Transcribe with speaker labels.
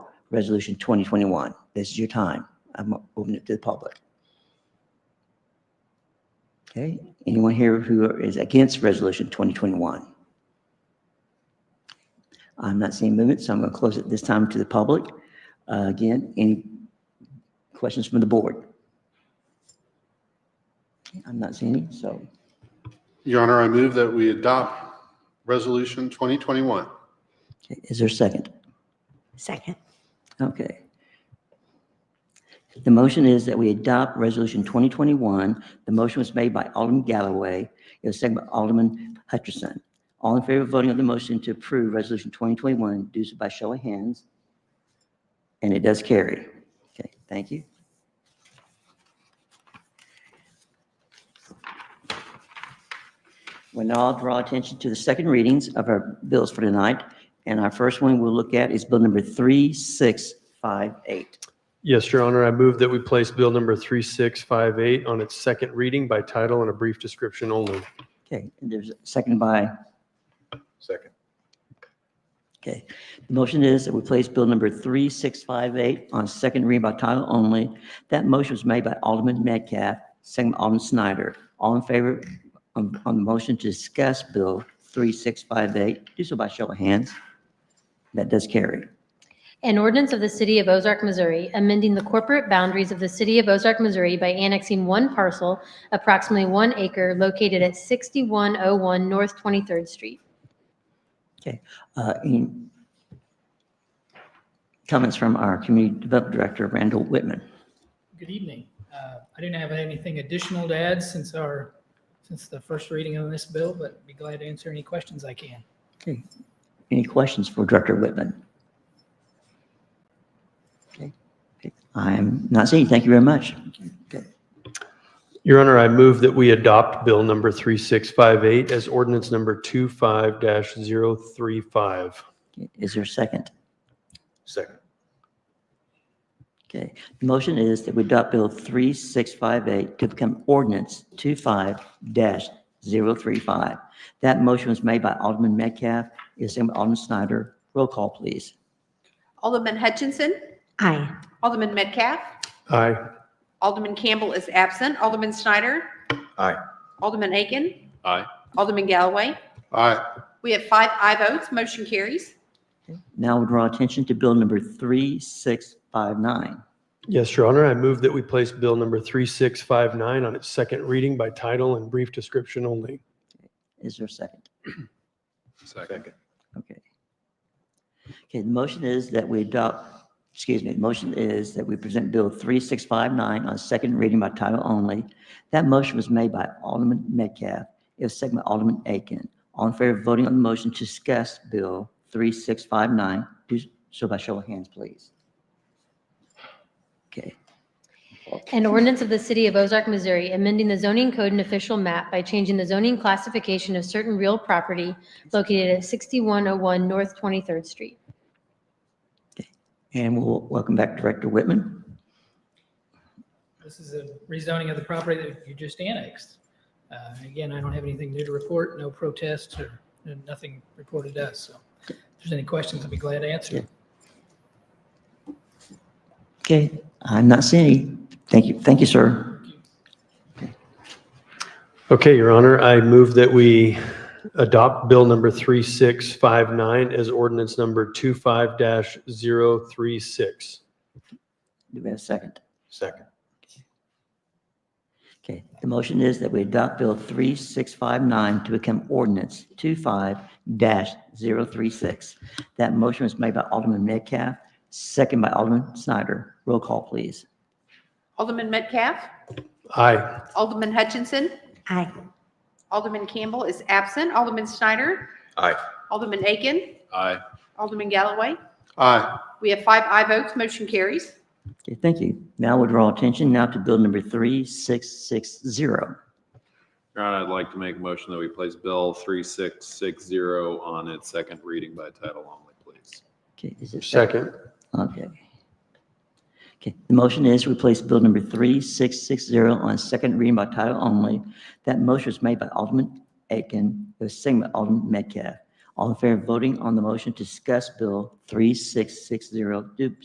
Speaker 1: Resolution 2021. This is your time. I'm opening it to the public. Okay, anyone here who is against Resolution 2021? I'm not seeing movement, so I'm going to close it this time to the public. Uh, Again, any questions from the board? I'm not seeing any, so
Speaker 2: Your Honor, I move that we adopt Resolution 2021.
Speaker 1: okay, is there a second?
Speaker 3: Second.
Speaker 1: Okay. The motion is that we adopt Resolution 2021. The motion was made by Alderman Galloway. It was seconded by Alderman Hutchinson. All in favor of voting on the motion to approve Resolution 2021, do so by show of hands. And it does carry. Okay, thank you. We'll now draw attention to the second readings of our bills for tonight. And our first one we'll look at is Bill number 3658.
Speaker 4: Yes, Your Honor, I move that we place Bill number 3658 on its second reading by title and a brief description only.
Speaker 1: Okay, and there's a second by,
Speaker 2: Second.
Speaker 1: okay. The motion is that we place Bill number 3658 on second read by title only. That motion was made by Alderman Metcalf, second by Alderman Snyder. All in favor on on the motion to discuss Bill 3658, do so by show of hands. That does carry.
Speaker 5: An ordinance of the City of Ozark, Missouri, amending the corporate boundaries of the City of Ozark, Missouri by annexing one parcel, approximately one acre, located at 6101 North 23rd Street.
Speaker 1: Uh, Any comments from our Community Development Director, Randall Whitman?
Speaker 6: Good evening. Uh, I didn't have anything additional to add since our, since the first reading on this bill, but be glad to answer any questions I can.
Speaker 1: Okay. Any questions for Director Whitman? Okay. Okay. I'm not seeing. Thank you very much. Okay.
Speaker 4: Your Honor, I move that we adopt Bill number 3658 as ordinance number 25-035.
Speaker 1: Okay. Is there a second?
Speaker 2: Second.
Speaker 1: Okay. The motion is that we adopt Bill 3658 to become ordinance 25-035. That motion was made by Alderman Metcalf, is seconded by Alderman Snyder. Roll call, please.
Speaker 7: Alderman Hutchinson,
Speaker 3: Aye.
Speaker 7: Alderman Metcalf,
Speaker 4: Aye.
Speaker 7: Alderman Campbell is absent, Alderman Snyder.
Speaker 2: Aye.
Speaker 7: Alderman Aiken,
Speaker 2: Aye.
Speaker 7: Alderman Galloway.
Speaker 2: Aye.
Speaker 7: We have five aye votes, motion carries.
Speaker 1: Now we'll draw attention to Bill number 3659.
Speaker 4: Yes, Your Honor, I move that we place Bill number 3659 on its second reading by title and brief description only.
Speaker 1: Is there a second?
Speaker 2: Second.
Speaker 1: Okay. Okay, the motion is that we adopt, excuse me, the motion is that we present Bill 3659 on second reading by title only. That motion was made by Alderman Metcalf. It was seconded by Alderman Aiken. All in favor of voting on the motion to discuss Bill 3659, do so by show of hands, please. Okay,
Speaker 5: An ordinance of the City of Ozark, Missouri, amending the zoning code and official map by changing the zoning classification of certain real property located at 6101 North 23rd Street.
Speaker 1: and we'll welcome back Director Whitman.
Speaker 6: This is a rezoning of the property that you just annexed. Uh, Again, I don't have anything new to report, no protests or nothing reported to us. So if there's any questions, I'd be glad to answer.
Speaker 1: Okay, I'm not seeing any. Thank you, thank you, sir.
Speaker 4: Okay, Your Honor, I move that we adopt Bill number 3659 as ordinance number 25-036.
Speaker 1: Do we have a second?
Speaker 2: Second.
Speaker 1: Okay, the motion is that we adopt Bill 3659 to become ordinance 25-036. That motion was made by Alderman Metcalf, second by Alderman Snyder. Roll call, please.
Speaker 7: Alderman Metcalf,
Speaker 4: Aye.
Speaker 7: Alderman Hutchinson,
Speaker 3: Aye.
Speaker 7: Alderman Campbell is absent, Alderman Snyder.
Speaker 2: Aye.
Speaker 7: Alderman Aiken,
Speaker 2: Aye.
Speaker 7: Alderman Galloway.
Speaker 2: Aye.
Speaker 7: We have five aye votes, motion carries.
Speaker 1: Okay, thank you. Now we'll draw attention now to Bill number 3660.
Speaker 8: Your Honor, I'd like to make a motion that we place Bill 3660 on its second reading by title only, please.
Speaker 1: Okay, is it
Speaker 4: Second.
Speaker 1: Okay. Okay, the motion is to replace Bill number 3660 on second reading by title only. That motion was made by Alderman Aiken, it was seconded by Alderman Metcalf. All in favor of voting on the motion to discuss Bill 3660, do